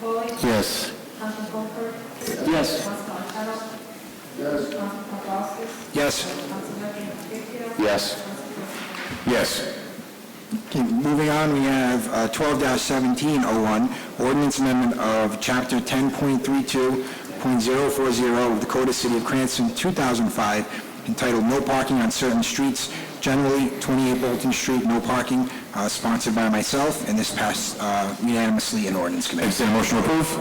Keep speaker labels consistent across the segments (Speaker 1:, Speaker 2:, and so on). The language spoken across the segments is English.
Speaker 1: Foley,
Speaker 2: Yes.
Speaker 1: Councilman Goldberg,
Speaker 2: Yes.
Speaker 1: Councilman Montero,
Speaker 2: Yes.
Speaker 1: Councilman Paplaskas,
Speaker 2: Yes.
Speaker 1: Councilman Trujillo.
Speaker 2: Yes. Yes.
Speaker 3: Okay, moving on, we have uh, 12-1701, ordinance amendment of Chapter 10.32.040 of the Code of City of Cranston, 2005, entitled No Parking on Certain Streets, generally 28 Bolton Street, no parking, uh, sponsored by myself, and this passed uh, unanimously in ordinance committee.
Speaker 2: Entertained a motion to approve?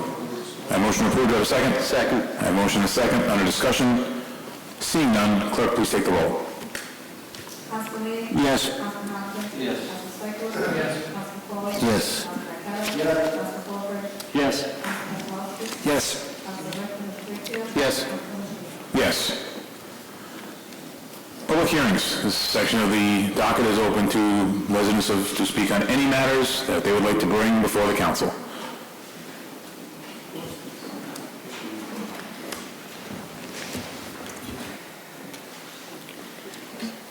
Speaker 2: I have a motion to approve, do I have a second? Second. I have a motion and a second, under discussion. Seeing none, clerk, please take the roll.
Speaker 1: Councilman Lee.
Speaker 2: Yes.
Speaker 1: Councilman Hopkins. Yes. Councilman Stieglus. Yes. Councilman Foley.
Speaker 2: Yes.
Speaker 1: Councilman Montero. Yes. Councilman Goldberg, Councilman Paplaskas,
Speaker 2: Yes.
Speaker 3: Yes.
Speaker 1: Councilman Trujillo.
Speaker 2: Yes.
Speaker 1: Councilman Trujillo.
Speaker 2: Yes. Public hearings. This section of the docket is open to residents of, to speak on any matters that they would like to bring before the council.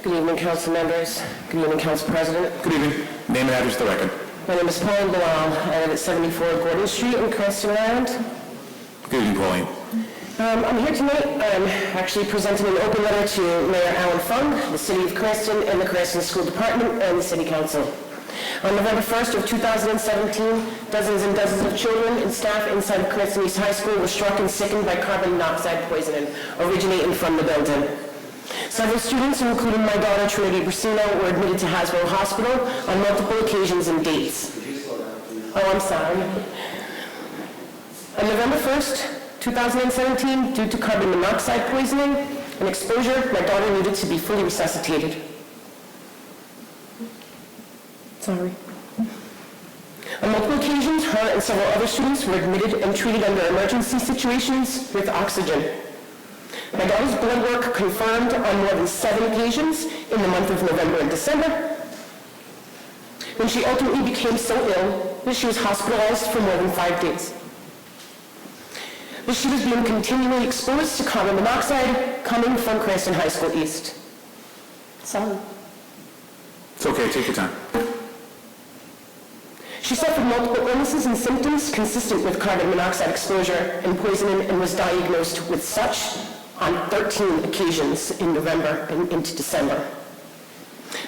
Speaker 4: Good evening, council members. Good evening, council president.
Speaker 2: Good evening. Name and address to the record.
Speaker 4: My name is Pauline Bilal. I live at 74 Gordon Street in Cranston, Rhode Island.
Speaker 2: Good evening, Pauline.
Speaker 4: Um, I'm here tonight, I'm actually presenting an open letter to Mayor Alan Fung, the City of Cranston, and the Cranston School Department, and the City Council. On November 1st of 2017, dozens and dozens of children and staff inside of Cranston East High School were struck and sickened by carbon monoxide poisoning originating from the building. Several students, including my daughter Trinity Brusino, were admitted to Hasbro Hospital on multiple occasions and dates. Oh, I'm sorry. On November 1st, 2017, due to carbon monoxide poisoning and exposure, my daughter needed to be fully resuscitated. Sorry. On multiple occasions, her and several other students were admitted and treated under emergency situations with oxygen. My daughter's blood work confirmed on more than seven occasions in the month of November and December, when she ultimately became so ill that she was hospitalized for more than five days that she was being continually exposed to carbon monoxide coming from Cranston High School East. Sorry.
Speaker 2: It's okay, take your time.
Speaker 4: She suffered multiple illnesses and symptoms consistent with carbon monoxide exposure and poisoning and was diagnosed with such on 13 occasions in November and into December.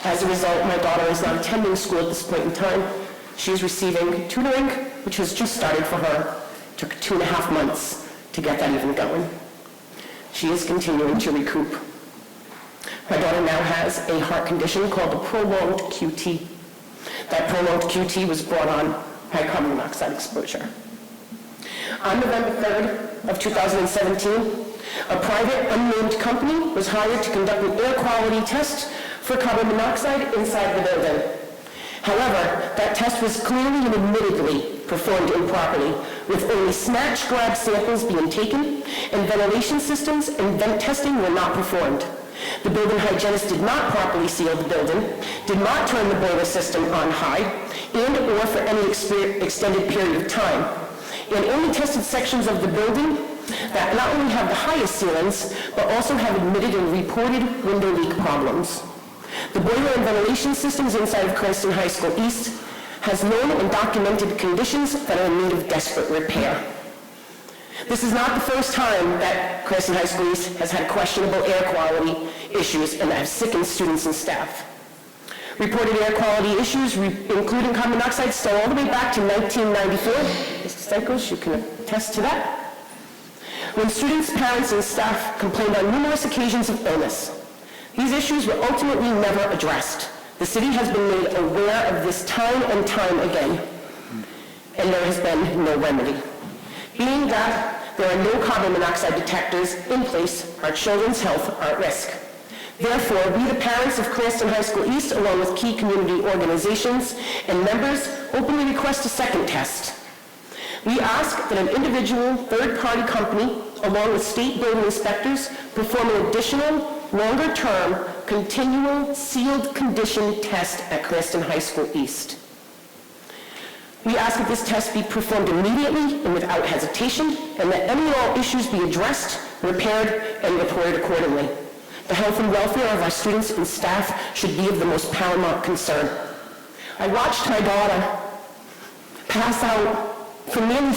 Speaker 4: As a result, my daughter is not attending school at this point in time. She is receiving tutoring, which has just started for her. Took two and a half months to get that even going. She is continuing to recoup. My daughter now has a heart condition called a prolonged QT. That prolonged QT was brought on by carbon monoxide exposure. On November 3rd of 2017, a private unnamed company was hired to conduct an air quality test for carbon monoxide inside the building. However, that test was clearly and admittedly performed improperly, with only snatch grab samples being taken, and ventilation systems and vent testing were not performed. The building hygienist did not properly seal the building, did not turn the boiler system on high, and/or for any exper- extended period of time, and only tested sections of the building that not only have the highest ceilings, but also have admitted and reported window leak problems. The boiler and ventilation systems inside of Cranston High School East has known and documented conditions that are in need of desperate repair. This is not the first time that Crescent High School East has had questionable air quality issues and that have sickened students and staff. Reported air quality issues, re- including carbon monoxide, stole all the way back to 1994. Mr. Stichels, you can attest to that. When students, parents, and staff complained on numerous occasions of illness, these issues were ultimately never addressed. The city has been made aware of this time and time again and there has been no remedy. Being that there are no carbon monoxide detectors in place, our children's health are at risk. Therefore, we, the parents of Cranston High School East, along with key community organizations and members, openly request a second test. We ask that an individual third-party company, along with state building inspectors, perform an additional, longer-term, continual sealed condition test at Cranston High School East. We ask that this test be performed immediately and without hesitation, and that any and all issues be addressed, repaired, and reported accordingly. The health and welfare of our students and staff should be of the most paramount concern. I watched my daughter pass out for nearly